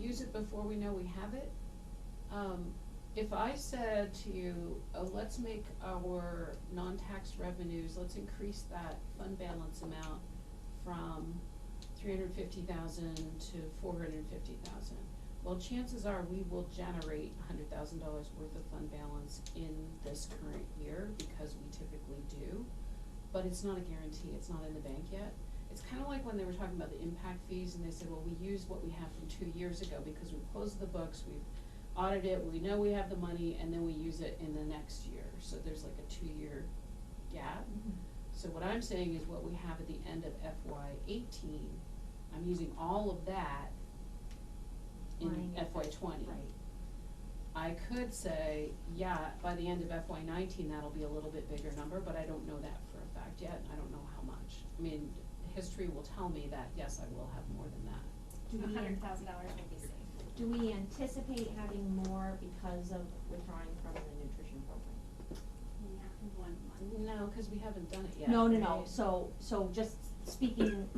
use it before we know we have it. Um, if I said to you, oh, let's make our non-tax revenues, let's increase that fund balance amount from three hundred fifty thousand to four hundred fifty thousand. Well, chances are we will generate hundred thousand dollars worth of fund balance in this current year because we typically do. But it's not a guarantee, it's not in the bank yet. It's kinda like when they were talking about the impact fees and they said, well, we use what we have from two years ago because we closed the books, we've audited it, we know we have the money, and then we use it in the next year. So there's like a two-year gap. So what I'm saying is what we have at the end of FY eighteen, I'm using all of that in Line. FY twenty. Right. I could say, yeah, by the end of FY nineteen, that'll be a little bit bigger number, but I don't know that for a fact yet, and I don't know how much. I mean, history will tell me that, yes, I will have more than that. Do we, hundred an- thousand dollars would be safe. do we anticipate having more because of withdrawing from the nutrition program? Not in one month. No, cause we haven't done it yet. No, no, no, right? so, so just speaking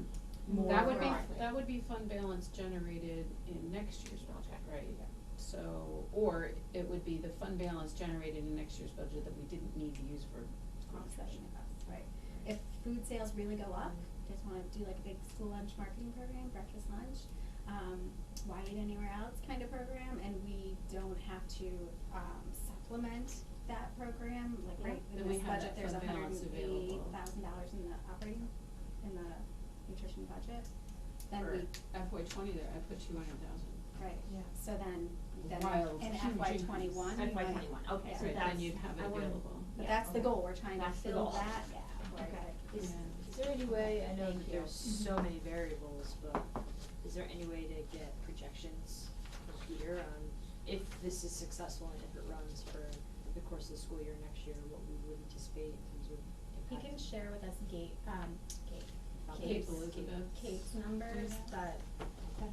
more That would be, broadly. that would be fund balance generated in next year's budget, right? So, or it would be the fund balance generated in next year's budget that we didn't need to use for Offsetting nutrition. of us, right. If food sales really go up, just wanna do like a big school lunch marketing program, breakfast lunch, um, why eat anywhere else kind of program, and we don't have to, um, supplement that program, like Yeah. right Then in we this have budget, that there's a fund hundred balance and eight available. thousand dollars in the operating, in the nutrition budget, then For we, FY twenty there, I put two hundred thousand. right, Yeah. so then, then Wild, in huge FY increase. twenty-one, FY we might- twenty-one, okay, yeah. so Right, then that's- you'd have it I wanna- available. But Yeah, that's the okay. goal, we're trying to That's the fill goal. that, yeah, where Okay. it's- Is, Yeah. Is there any way, I know Thank that there's you. so many variables, but is there any way to get projections from Peter on if this is successful and if it runs for the course of the school year next year, what we would anticipate in terms of He impact? can share with us gate, um, gate, Um, Kate's, Cape Elizabeth. Kate's numbers, but, yeah.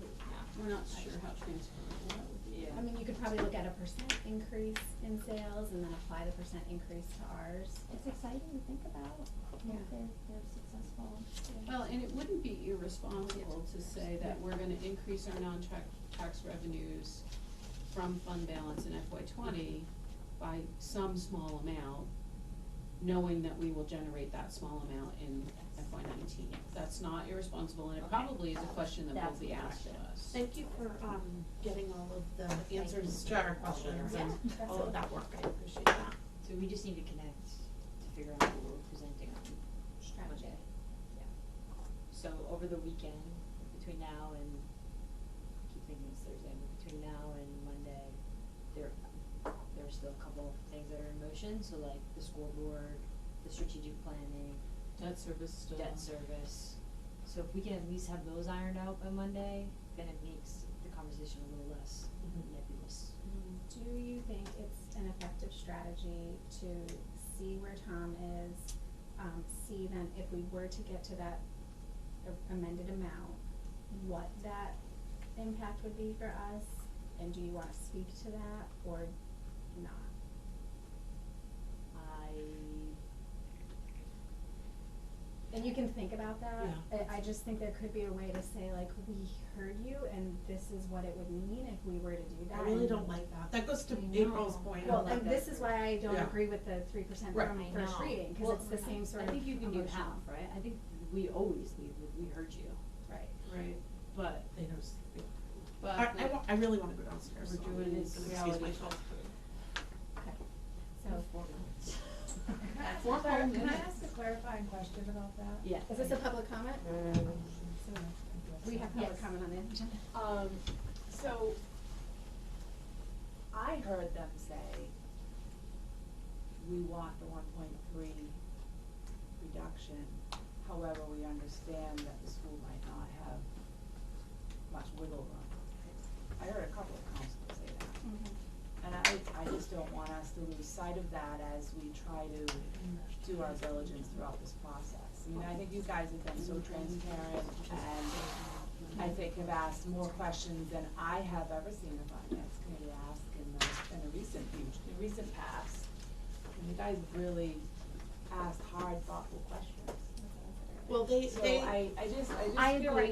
We're not sure how transferable that would be. Yeah. I mean, you could probably look at a percent increase in sales and then apply the percent increase to ours. it's exciting to think about, Yeah. if they're, they're successful. Well, and it wouldn't be irresponsible to say that we're gonna increase our non-tax tax revenues from fund balance in FY twenty by some small amount, knowing that we will generate that small amount in FY nineteen. That's not irresponsible, and it probably is a question that will That's be the asked of us. Thank you for, um, getting all of the you. answers to our questions Yeah, and that's all all. of that work, I appreciate that. So we just need to connect to figure out what we're presenting on Monday. Yeah. So over the weekend, between now and, I keep thinking it's Thursday, but between now and Monday, there, there are still a couple of things that are in motion, so like the school board, the strategic planning, Debt service still. debt service. So if we can at least have those ironed out by Monday, then it makes the conversation a little less Mm-hmm. Mhm. nebulous. Do you think it's an effective strategy to see where Tom is, um, see then if we were to get to that a- amended amount, what that impact would be for us? And do you wanna speak to that or not? I And you can think about that. Yeah. I, I just think there could be a way to say like, we heard you and this is what it would mean if we were to do that. I really and- don't like that. That goes to I know. April's point. Well, about and this is why I don't Yeah. agree with the three percent Right. from I first know. reading, cause Well, it's the same sort I of think you can do emotional. half, right? I think we always leave with, we heard you, Right. Right, but They don't s- they- but. I, I like- wa- I really wanna go downstairs, We're so doing I'm is gonna excuse reality myself. Okay, so, Four Sorry, can I minutes. ask a clarifying question about that? yeah. is this a public comment? We have public Yes. comment on the agenda. Um, so, I heard them say, we want the one point three reduction. However, we understand that the school might not have much wiggle room. uh, I heard a couple of counselors say that. And I, I just don't want us to lose sight of that as we try to do our diligence throughout this process. I mean, I think you guys have been so Mm-hmm. transparent and I think have asked more questions than I have ever seen a finance committee ask in the, in the recent future, in recent past. And you guys really asked hard, thoughtful questions. Well, they, So they. I, I just, I just feel like I agree.